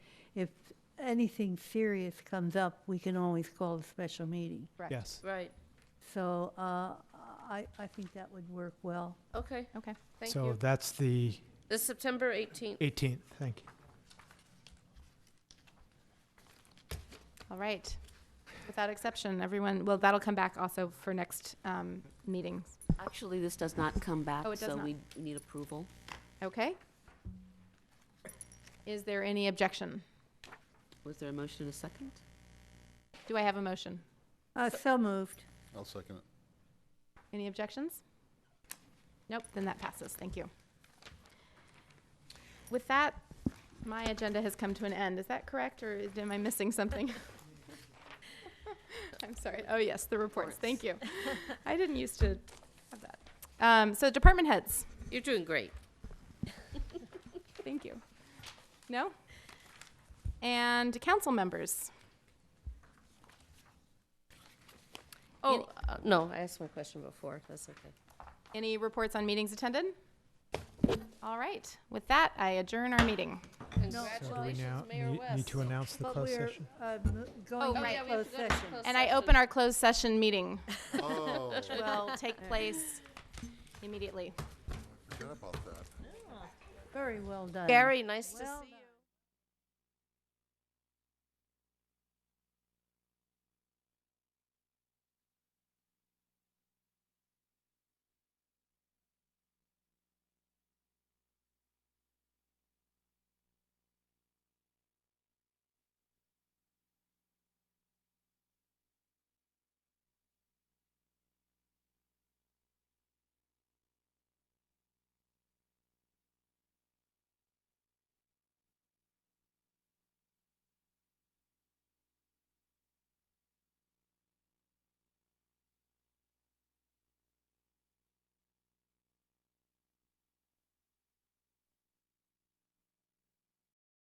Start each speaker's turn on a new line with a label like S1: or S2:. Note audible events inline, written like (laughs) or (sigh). S1: if anything serious comes up, we can always call a special meeting.
S2: Correct.
S3: Yes.
S2: Right,
S1: So uh, I, I think that would work well.
S2: okay,
S4: Okay.
S2: thank
S3: So
S2: you.
S3: that's the
S2: This September 18th.
S3: 18th. Thank you.
S4: All right. Without exception, everyone, well, that'll come back also for next um, meetings.
S5: Actually, this does not come back,
S4: Oh, it does
S5: so
S4: not.
S5: we need approval.
S4: Okay? Is there any objection?
S5: Was there a motion and a second?
S4: Do I have a motion?
S1: Uh, So moved.
S6: I'll second it.
S4: Any objections? Nope, then that passes. Thank you. With that, my agenda has come to an end. Is that correct, or is- am I missing something? (laughs) I'm sorry. Oh, yes, the reports. Thank you. I didn't used to have that. Um, So department heads,
S2: You're doing great.
S4: thank you. No? And council members.
S2: Oh, uh, no, I asked my question before, that's okay.
S4: Any reports on meetings attended? All right. With that, I adjourn our meeting.
S3: So do we now
S2: Congratulations, Mayor
S3: need- need
S2: West.
S3: to announce the
S1: But
S3: closed
S1: we're
S3: session?
S1: uh, mo- going
S4: Oh,
S1: to
S4: yeah,
S2: we have
S1: closed
S2: to go to
S1: session.
S2: closed
S4: And I open our closed session meeting,
S6: Oh,
S4: which will take place immediately.
S6: forgot about that.
S1: Very well done.
S2: Gary, nice to see
S1: Well
S2: you.